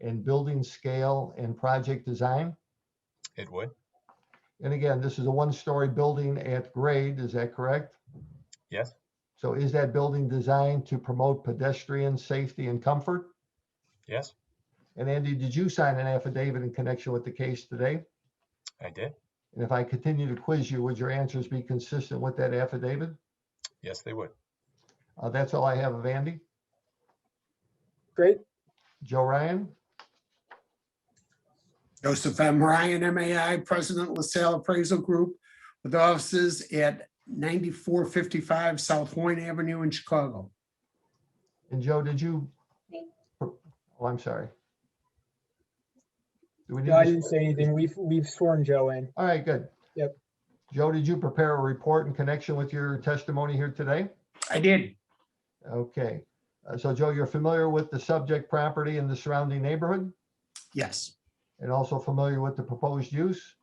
in building scale and project design? It would. And again, this is a one-story building at grade, is that correct? Yes. So is that building designed to promote pedestrian safety and comfort? Yes, And Andy, did you sign an affidavit in connection with the case today? I did. And if I continue to quiz you, would your answers be consistent with that affidavit? Yes, they would. Uh, that's all I have of Andy. Great. Joe Ryan, Joseph M. Ryan, MAI, President LaSalle Appraisal Group, with offices at 9455 South Point Avenue in Chicago. and Joe, did you? Me. Oh, I'm sorry. Do we need No, I to- didn't say anything. We've, we've sworn Joe in. All right, good. Yep. Joe, did you prepare a report in connection with your testimony here today? I did. Okay, Uh, so Joe, you're familiar with the subject property and the surrounding neighborhood Yes, and also familiar with the proposed use?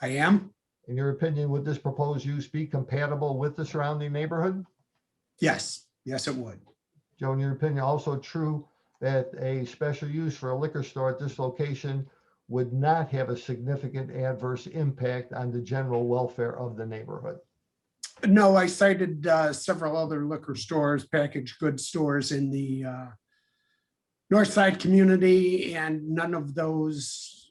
I am. In your opinion, would this proposed use be compatible with the surrounding neighborhood? Yes, yes, it would. Joe, in your opinion, also true that a special use for a liquor store at this location would not have a significant adverse impact on the general welfare of the neighborhood? No, I cited uh, several other liquor stores, packaged goods stores in the uh, North Side community, and none of those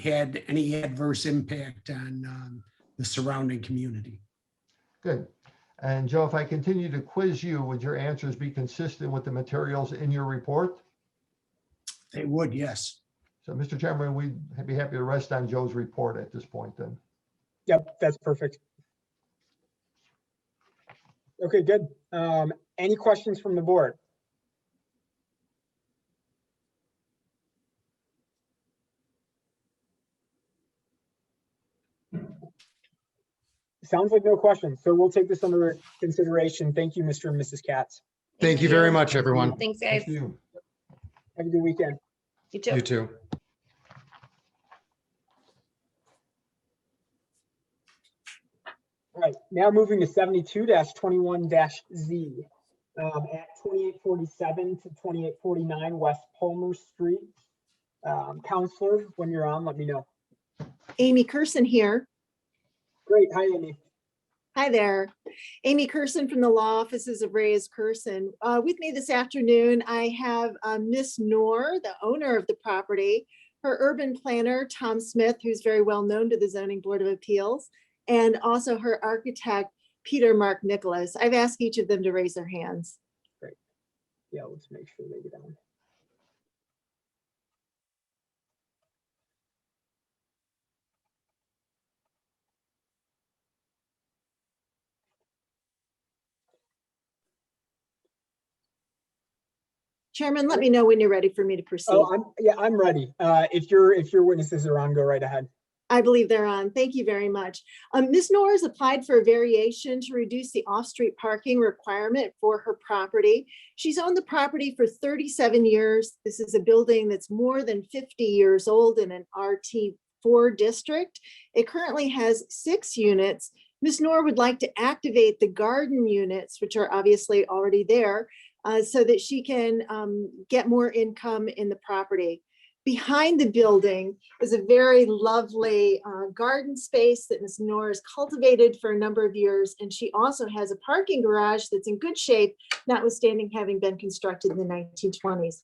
had any adverse impact on um, the surrounding community. Good. And Joe, if I continue to quiz you, would your answers be consistent with the materials in your report? They would, yes. So, Mr. Chairman, we'd be happy to rest on Joe's report at this point then. Yep, that's perfect. Okay, good. Um, any questions from the board? Sounds like no questions, so we'll take this under consideration. Thank you, Mr. and Mrs. Katz. Thank you very much, everyone. Thanks, guys. Thank you. Have a good weekend. You too. You too. All right, now moving to seventy-two twenty-one Z. Um, at twenty-eight forty-seven to twenty-eight forty-nine West Palmer Street. Um, counselor, when you're on, let me know. Amy Curson here. Great, hi Amy. Hi there. Amy Curson from the Law Offices of Reyes Curson. Uh, With me this afternoon, I have uh, Miss Noor, the owner of the property, her urban planner, Tom Smith, who's very well known to the Zoning Board of Appeals, and also her architect, Peter Mark Nicholas. I've asked each of them to raise their hands. Yeah, let's make sure they get on. Chairman, let me know when you're ready for me to proceed. Oh, I'm, yeah, I'm ready. Uh, if your, if your witnesses are on, go right ahead. I believe they're on. Thank you very much. Um, Ms. Norris applied for a variation to reduce the off-street parking requirement for her property. She's owned the property for 37 years. This is a building that's more than 50 years old in an RT4 district. It currently has six units. Ms. Nor would like to activate the garden units, which are obviously already there, uh, so that she can um, get more income in the property. Behind the building, is a very lovely uh, garden space that Ms. Noor has cultivated for a number of years. And she also has a parking garage that's in good shape, notwithstanding having been constructed in the 1920s.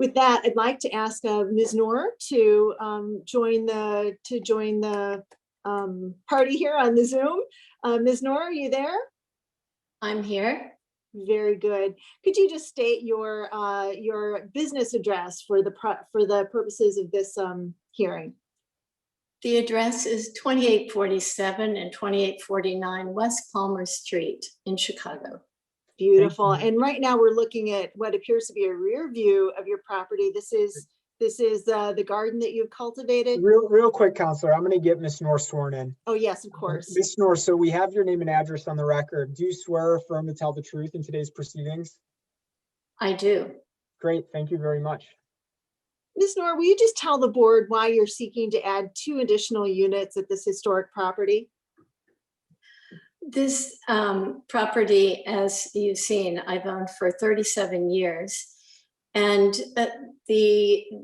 With that, I'd like to ask uh, Ms. Noor to um, join the, to join the um, party here on the Zoom. Uh, Ms. Noor, are you there? I'm here. Very good. Could you just state your, uh, your business address for the, pro- for the purposes of this um, hearing? The address is 2847 and 2849 West Palmer Street in Chicago. Beautiful. And right now we're looking at what appears to be a rear view of your property. This is, this is uh, the garden that you've cultivated? Real, real quick, counselor, I'm gonna get Ms. Norris sworn in. Oh, yes, of course. Ms. Norris, so we have your name and address on the record. Do you swear or affirm to tell the truth in today's proceedings? I do. Great, thank you very much. Ms. Nor, will you just tell the board why you're seeking to add two additional units at this historic property? This um, property, as you've seen, I've owned for 37 years. And uh, the